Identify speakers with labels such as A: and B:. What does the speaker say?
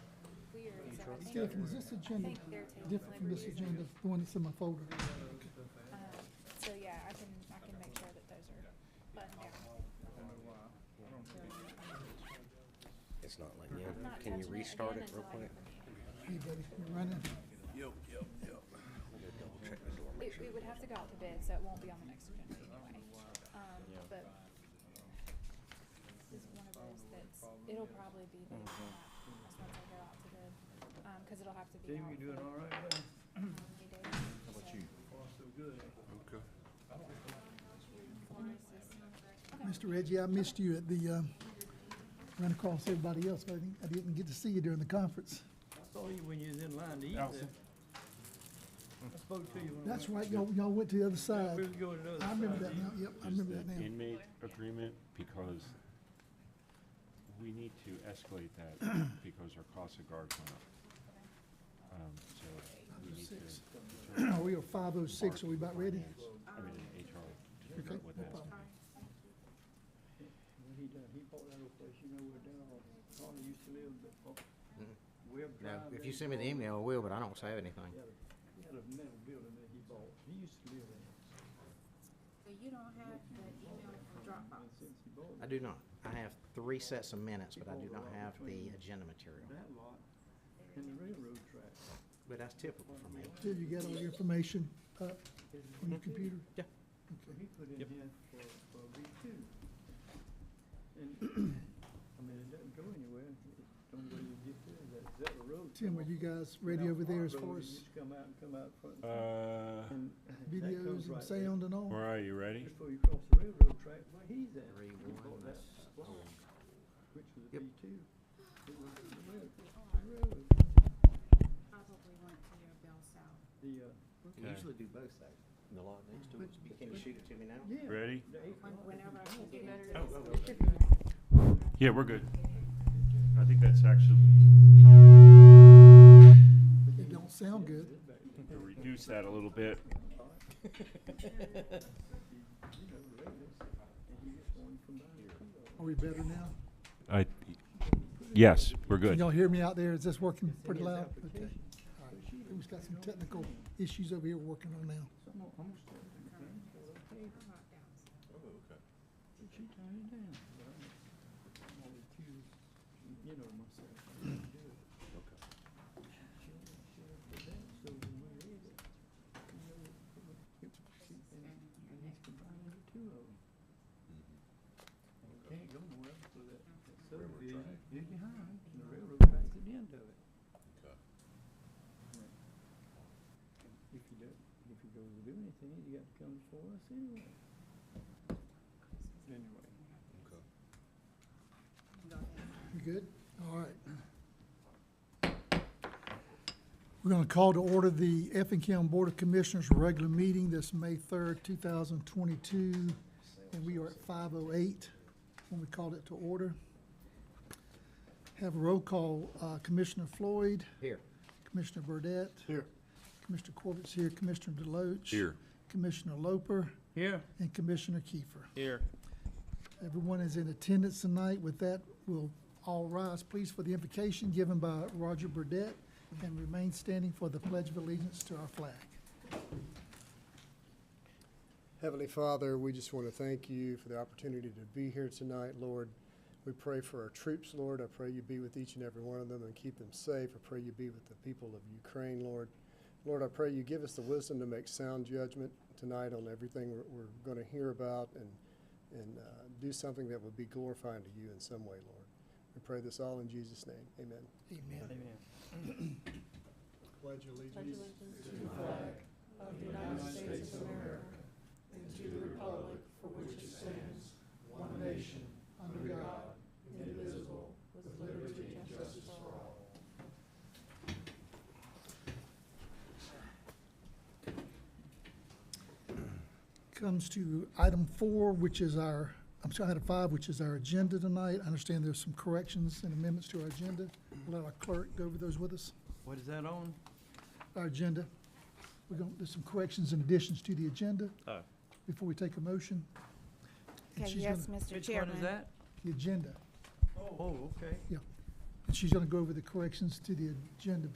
A: Stephen, is this agenda
B: think they're taking
A: different from this
B: liberties.
A: agenda, the one that's in my folder?
B: Um, So, yeah, I can, I can make sure that those are buttoned down.
C: It's not like,
B: I'm not
C: yeah, can you
B: touching it
C: restart
B: again
C: it real
B: until I
C: quick?
B: get the
A: Hey, buddy, you running?
B: new. It, it would have to go out to bid, so it won't be on the next agenda anyway. Um, but this is one of those that's, it'll probably be the, that's once I go out to bid, um, cause it'll have to be out.
D: Jamie, you doing
B: for
D: all right, buddy?
B: how many days, so-
D: Oh, so good.
E: Okay.
A: Mr. Reggie, I missed you at the, um, run across everybody else, but I didn't, I didn't get to see you during the conference.
D: I saw you when you was in line to eat there.
E: Allison.
D: I spoke to you when. I
A: That's
D: went-
A: right, y'all, y'all went to the other side.
D: We was going to the other
A: I remember
D: side.
A: that now, yep, I
F: is
A: remember
F: the
A: that now.
F: inmate agreement, because we need to escalate that, because our cost of guards went up. Um, so we need to. determine
A: We are five oh six, are we about ready?
F: finance, I mean, in HR, to
A: Okay,
F: figure out what
A: no
F: that's gonna be.
D: What he done, he bought that old place, you know, where down on, Tony used to live, but, uh, Webb Drive.
C: No, Mm-hmm. if
D: there,
C: you
D: he
C: send me the
D: bought-
C: email, I will, but I don't save anything.
D: He had a- he had a metal building that he bought, he used to live in it.
G: So you don't have the email from
D: And
G: Dropbox?
D: since he bought
C: I
D: that
C: do not. I have three sets of minutes, but I do not have the agenda material.
D: that lot and the railroad track.
C: But that's typical for me.
A: Till you get all your information up
D: his
A: on your computer?
C: Yeah.
D: So
A: Okay.
D: he put in
C: Yep.
D: here for, for week two. And, I mean, it doesn't go anywhere, it don't really get there, that Zetter Road.
A: Tim,
D: come
A: were
D: off-
A: you guys
D: come
A: ready
D: out
A: over there
D: Park
A: as
D: Road,
A: far
D: you
A: as
D: just come out and come out front.
F: Uh,
D: and that comes
A: videos and
D: right there.
A: sound and all?
F: where are Uh, you, ready?
D: Before you cross the railroad track, where he's at.
C: Three,
D: he
C: one,
D: bought that
C: that's
D: lot,
C: old.
D: Which was a
C: Yep.
D: B two. It was the rail- the
G: Or
D: railroad,
G: probably went to your Bell South.
D: the, uh,
F: can Okay. usually
C: do both sides. The lot next to it. Can you shoot it to me now? Oh,
D: yeah.
F: Ready?
D: the eight
G: When-
D: lot.
G: Whenever I can get it.
F: Yeah, we're good. I think that's actually,
A: It don't sound good.
F: to reduce that a little bit.
C: oh,
D: You know, the railroad, and you just one from down here.
A: Are we better now?
F: I, yes, we're
A: Can
F: good.
A: y'all hear me out there? Is this working
D: It's in
A: pretty
D: his
A: loud? Okay.
D: application.
A: All right. Who's got some technical issues over here working on now?
D: So I'm gonna- I'm gonna start with the thing, so I'll tell you what she turned it down, but I'm I'm gonna accuse, you know, myself. I didn't do it. She- she- she did that, so when we read it, you know, it was- it- she- and- and it's combining the two of them. And it can't go nowhere else with that, that subdivision is behind, and the railroad track's at the end of it. And If you do, if you go to do anything, you got to come before us anyway. Anyway.
A: You good? All right. We're gonna call to order the Effingham Board of Commissioners regular meeting this May third, two thousand twenty-two, and we are at five oh eight when we called it to order. Have a roll call, uh, Commissioner Floyd,
C: Here.
A: Commissioner Burdette. Here. Commissioner Corbett's here, Commissioner Deloach.
E: Here.
A: Commissioner Loper.
D: Here.
A: And Commissioner Kiefer.
D: Here.
A: Everyone is in attendance tonight. With that, we'll all rise, please, for the invocation given by Roger Burdette, and remain standing for the Pledge of Allegiance to our flag.
H: Heavenly Father, we just want to thank you for the opportunity to be here tonight, Lord. We pray for our troops, Lord. I pray you be with each and every one of them and keep them safe. I pray you be with the people of Ukraine, Lord. Lord, I pray you give us the wisdom to make sound judgment tonight on everything we're, we're going to hear about and, and uh, do something that would be glorifying to you in some way, Lord. We pray this all in Jesus' name. Amen.
A: Amen.
D: Amen.
H: Pledge allegiance.
A: Comes to item four, which is our, I'm sorry, item five, which is our agenda tonight. I understand there's some corrections and amendments to our agenda. We'll Let our clerk go over those with us,
D: What is that on?
A: our agenda. We're going, there's some corrections and additions to the agenda
D: Oh.
A: before we take a motion. And
G: Okay,
A: she's
G: yes,
A: gonna-
G: Mr.
D: Which
G: Chairman.
D: one is that?
A: The agenda.
D: Oh, okay.
A: And she's going to go over the corrections to the agenda